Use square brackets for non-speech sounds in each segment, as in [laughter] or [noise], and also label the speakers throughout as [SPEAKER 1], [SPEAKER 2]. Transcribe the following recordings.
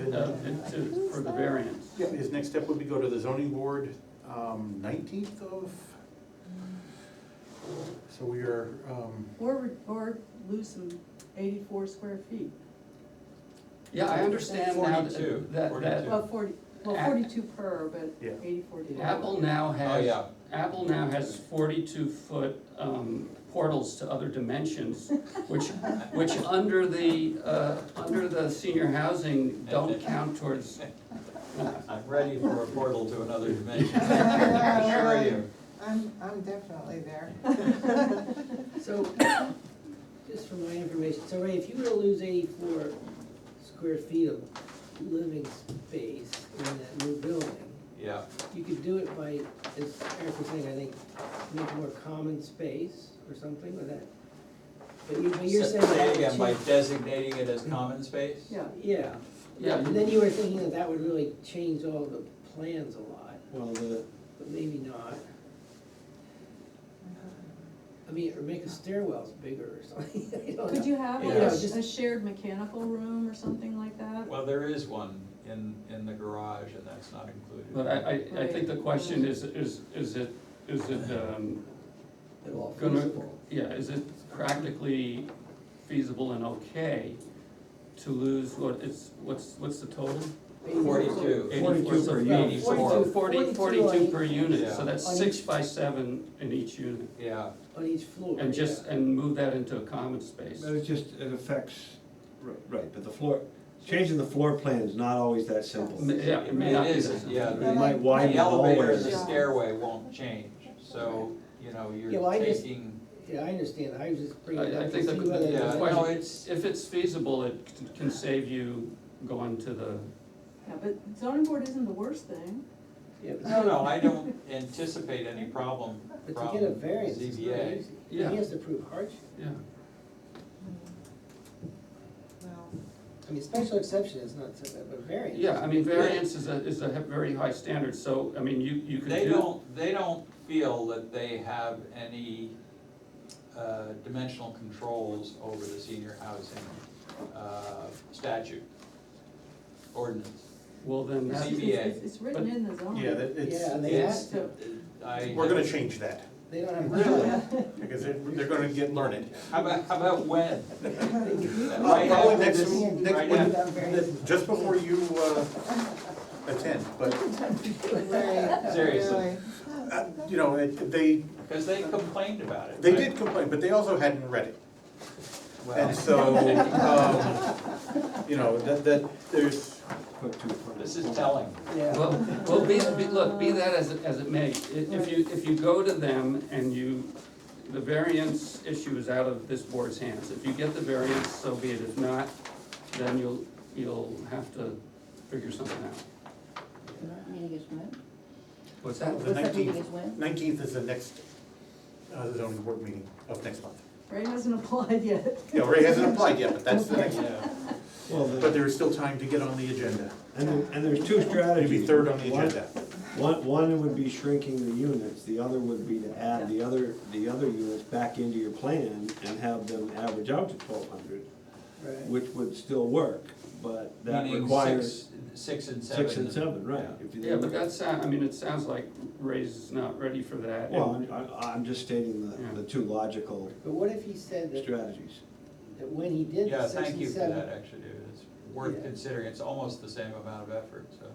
[SPEAKER 1] No, it's, it's for the variance.
[SPEAKER 2] Yeah, his next step would be go to the zoning board, um, nineteenth of, so we are, um,
[SPEAKER 3] Or, or lose some eighty-four square feet,
[SPEAKER 1] Yeah, I understand now that-
[SPEAKER 4] 42,
[SPEAKER 1] that, that
[SPEAKER 4] 42.
[SPEAKER 3] well, forty, well,
[SPEAKER 1] At-
[SPEAKER 3] forty-two per, but
[SPEAKER 2] Yeah.
[SPEAKER 3] eighty-four. total.
[SPEAKER 1] Apple now has,
[SPEAKER 4] yeah.
[SPEAKER 1] Apple now has forty-two foot, um, portals to other dimensions, which, which under the, uh, under the senior housing don't count towards,
[SPEAKER 4] I'm ready for a portal to another dimension, I assure you.
[SPEAKER 5] I'm, I'm definitely there.
[SPEAKER 6] So, just for my information, so Ray, if you were to lose eighty-four square feet of living space in that new building,
[SPEAKER 4] Yeah,
[SPEAKER 6] you could do it by, as Eric was saying, I think, make more common space or something with that. But you, but you're
[SPEAKER 4] Say-
[SPEAKER 6] saying
[SPEAKER 4] say
[SPEAKER 6] that
[SPEAKER 4] it again, by
[SPEAKER 6] would
[SPEAKER 4] designating it as common space?
[SPEAKER 3] Yeah,
[SPEAKER 6] change- Yeah,
[SPEAKER 1] yeah,
[SPEAKER 6] and then you were thinking that that would really change all the plans a lot,
[SPEAKER 2] well, the,
[SPEAKER 6] but maybe not. I mean, or make the stairwells bigger or something, [laughs] I don't know.
[SPEAKER 3] could you have like
[SPEAKER 4] Yeah,
[SPEAKER 3] a,
[SPEAKER 6] just-
[SPEAKER 3] a shared mechanical room or something like that?
[SPEAKER 4] Well, there is one in, in the garage, and that's not included.
[SPEAKER 1] but I, I, I think the question is, is, is it, is it, um,
[SPEAKER 6] At all
[SPEAKER 1] gonna-
[SPEAKER 6] feasible.
[SPEAKER 1] yeah, is it practically feasible and okay to lose what, it's, what's, what's the total?
[SPEAKER 4] Forty-two,
[SPEAKER 2] 42 per
[SPEAKER 1] unit.
[SPEAKER 4] unit.
[SPEAKER 1] Forty-two
[SPEAKER 6] 42
[SPEAKER 1] per unit, so
[SPEAKER 4] Yeah.
[SPEAKER 1] that's
[SPEAKER 6] On
[SPEAKER 1] six
[SPEAKER 6] each-
[SPEAKER 1] by seven in each unit.
[SPEAKER 4] yeah,
[SPEAKER 6] On each floor.
[SPEAKER 1] And just, and move that into a common space.
[SPEAKER 7] Well, It just, it affects, ri- right, but the floor, changing the floor plan is not always that simple.
[SPEAKER 1] M- Yeah, it may
[SPEAKER 4] It
[SPEAKER 1] not be
[SPEAKER 4] is,
[SPEAKER 1] that simple.
[SPEAKER 4] yeah.
[SPEAKER 7] You might widen
[SPEAKER 4] the
[SPEAKER 7] the
[SPEAKER 4] elevator and the
[SPEAKER 7] hallways.
[SPEAKER 5] Yeah.
[SPEAKER 4] stairway won't change, so, you know,
[SPEAKER 6] Yeah, well,
[SPEAKER 4] you're
[SPEAKER 6] I just-
[SPEAKER 4] taking,
[SPEAKER 6] Yeah, I understand, I was just bringing it
[SPEAKER 1] I, I
[SPEAKER 6] up to
[SPEAKER 1] think the,
[SPEAKER 6] see whether.
[SPEAKER 4] yeah,
[SPEAKER 1] the
[SPEAKER 6] there's-
[SPEAKER 4] no,
[SPEAKER 1] question,
[SPEAKER 4] it's-
[SPEAKER 1] if it's feasible, it c- can save you going to the,
[SPEAKER 3] Yeah, but zoning board isn't the worst thing,
[SPEAKER 6] Yeah, but-
[SPEAKER 4] no, no, I don't anticipate any problem
[SPEAKER 6] But to
[SPEAKER 4] from
[SPEAKER 6] get a variance is not
[SPEAKER 4] ZBA.
[SPEAKER 6] easy. He
[SPEAKER 1] Yeah.
[SPEAKER 6] has to prove hardship.
[SPEAKER 1] yeah.
[SPEAKER 5] Well,
[SPEAKER 6] I mean, special exception is not so bad, but variance.
[SPEAKER 1] Yeah, I mean, variance is a, is a he- very high standard, so, I mean, you, you could do.
[SPEAKER 4] They don't, they don't feel that they have any uh, dimensional controls over the senior housing uh, statute ordinance.
[SPEAKER 1] Well, then
[SPEAKER 3] it's,
[SPEAKER 1] that's,
[SPEAKER 4] ZBA.
[SPEAKER 3] it's, it's written
[SPEAKER 1] But-
[SPEAKER 3] in the zoning.
[SPEAKER 2] yeah, that,
[SPEAKER 6] Yeah,
[SPEAKER 2] it's,
[SPEAKER 6] they
[SPEAKER 4] It's-
[SPEAKER 6] have to,
[SPEAKER 4] I-
[SPEAKER 2] we're gonna change that,
[SPEAKER 6] they don't have.
[SPEAKER 2] because they're, they're gonna get learned.
[SPEAKER 4] How about, how about when?
[SPEAKER 2] Probably
[SPEAKER 4] Right after
[SPEAKER 2] next,
[SPEAKER 4] this-
[SPEAKER 2] next,
[SPEAKER 4] right
[SPEAKER 2] one-
[SPEAKER 4] after-
[SPEAKER 2] just before you, uh, attend, but,
[SPEAKER 5] Right,
[SPEAKER 4] Seriously.
[SPEAKER 5] really.
[SPEAKER 2] uh, you know, it- they,
[SPEAKER 4] Because they complained about it.
[SPEAKER 2] they
[SPEAKER 4] right?
[SPEAKER 2] did complain, but they also hadn't read it.
[SPEAKER 4] Well,
[SPEAKER 2] And so, um, you know, that, that, there's,
[SPEAKER 7] Put two
[SPEAKER 4] [laughs]
[SPEAKER 7] front-
[SPEAKER 4] this is telling.
[SPEAKER 6] Yeah,
[SPEAKER 1] Well, well, be, be, look, be that as it, as it may, i- if you, if you go to them and you, the variance issue is out of this board's hands. If you get the variance, so be it. If not, then you'll, you'll have to figure something out.
[SPEAKER 8] Meeting is when?
[SPEAKER 1] What's that?
[SPEAKER 2] The
[SPEAKER 8] What's that meeting
[SPEAKER 2] 19th.
[SPEAKER 8] is when?
[SPEAKER 2] Nineteenth is the next uh, zoning board meeting of next month.
[SPEAKER 3] Ray hasn't [laughs] applied yet.
[SPEAKER 2] Yeah, Ray hasn't applied yet, but that's the next,
[SPEAKER 4] Yeah.
[SPEAKER 7] Well, the-
[SPEAKER 2] but there is still time to get on the agenda.
[SPEAKER 7] And, there- and there's two strategies.
[SPEAKER 2] It'd be third on the
[SPEAKER 7] One-
[SPEAKER 2] agenda.
[SPEAKER 7] One, one would be shrinking the units, the other would be to add the other, the other units back into your plan and have them average out to twelve hundred,
[SPEAKER 6] right.
[SPEAKER 7] which would still work, but that
[SPEAKER 4] Meaning
[SPEAKER 7] requires
[SPEAKER 4] six, six and seven.
[SPEAKER 7] six and seven, right?
[SPEAKER 4] Yeah.
[SPEAKER 7] If you-
[SPEAKER 1] Yeah, but that sound, I mean, it sounds like Ray's not ready for that.
[SPEAKER 7] Well, I'm- I, I'm just stating
[SPEAKER 1] Yeah.
[SPEAKER 7] the, the two logical
[SPEAKER 6] But what if he said that,
[SPEAKER 7] strategies.
[SPEAKER 6] that when he did
[SPEAKER 4] Yeah,
[SPEAKER 6] the six
[SPEAKER 4] thank
[SPEAKER 6] and
[SPEAKER 4] you for that,
[SPEAKER 6] seven?
[SPEAKER 4] actually, dude, it's worth
[SPEAKER 6] Yeah.
[SPEAKER 4] considering, it's almost the same amount of effort, so.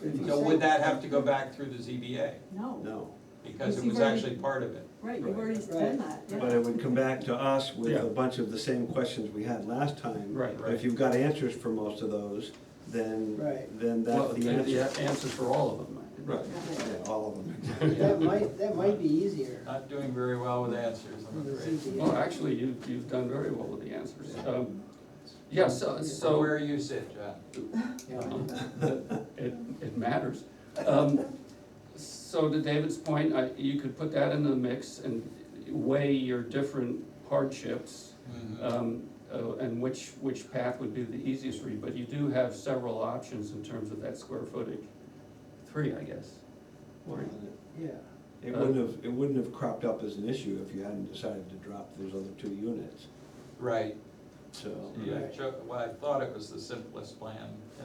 [SPEAKER 6] but if he
[SPEAKER 4] So
[SPEAKER 6] said-
[SPEAKER 4] would that have to go back through the ZBA,
[SPEAKER 3] No,
[SPEAKER 7] No,
[SPEAKER 4] because it
[SPEAKER 3] Because
[SPEAKER 4] was
[SPEAKER 3] you've already-
[SPEAKER 4] actually part of it?
[SPEAKER 3] right, you've
[SPEAKER 7] Right.
[SPEAKER 3] already done that, yeah.
[SPEAKER 7] but it would come back to us with
[SPEAKER 1] Yeah.
[SPEAKER 7] a bunch of the same questions we had last time.
[SPEAKER 1] Right,
[SPEAKER 4] right.
[SPEAKER 7] If you've got answers for most of those, then,
[SPEAKER 6] Right.
[SPEAKER 7] then
[SPEAKER 1] Well,
[SPEAKER 7] that's
[SPEAKER 1] the
[SPEAKER 7] the answer.
[SPEAKER 1] answer for all of them.
[SPEAKER 7] Right, yeah, all of
[SPEAKER 1] [laughs]
[SPEAKER 7] them.
[SPEAKER 6] That might, that might be easier
[SPEAKER 4] Not doing very well with answers,
[SPEAKER 6] on
[SPEAKER 4] I'm
[SPEAKER 6] the
[SPEAKER 4] afraid.
[SPEAKER 1] Well,
[SPEAKER 6] ZBA.
[SPEAKER 1] actually, you, you've done very well with the answers. Um, Yeah, so, so.
[SPEAKER 4] So where you sit, John? Uh-huh.
[SPEAKER 1] Um, [laughs] It, it matters. Um, So to David's point, I, you could put that in the mix and weigh your different hardships,
[SPEAKER 4] Mhm.
[SPEAKER 1] um, uh, and which, which path would be the easiest for you, but you do have several options in terms of that square footage. Three, I guess. Or-
[SPEAKER 6] Yeah,
[SPEAKER 7] It wouldn't have, it wouldn't have cropped up as an issue if you hadn't decided to drop those other two units,
[SPEAKER 4] Right,
[SPEAKER 7] so.
[SPEAKER 4] yeah,
[SPEAKER 6] Right.
[SPEAKER 4] Cho- well, I thought it was the simplest plan,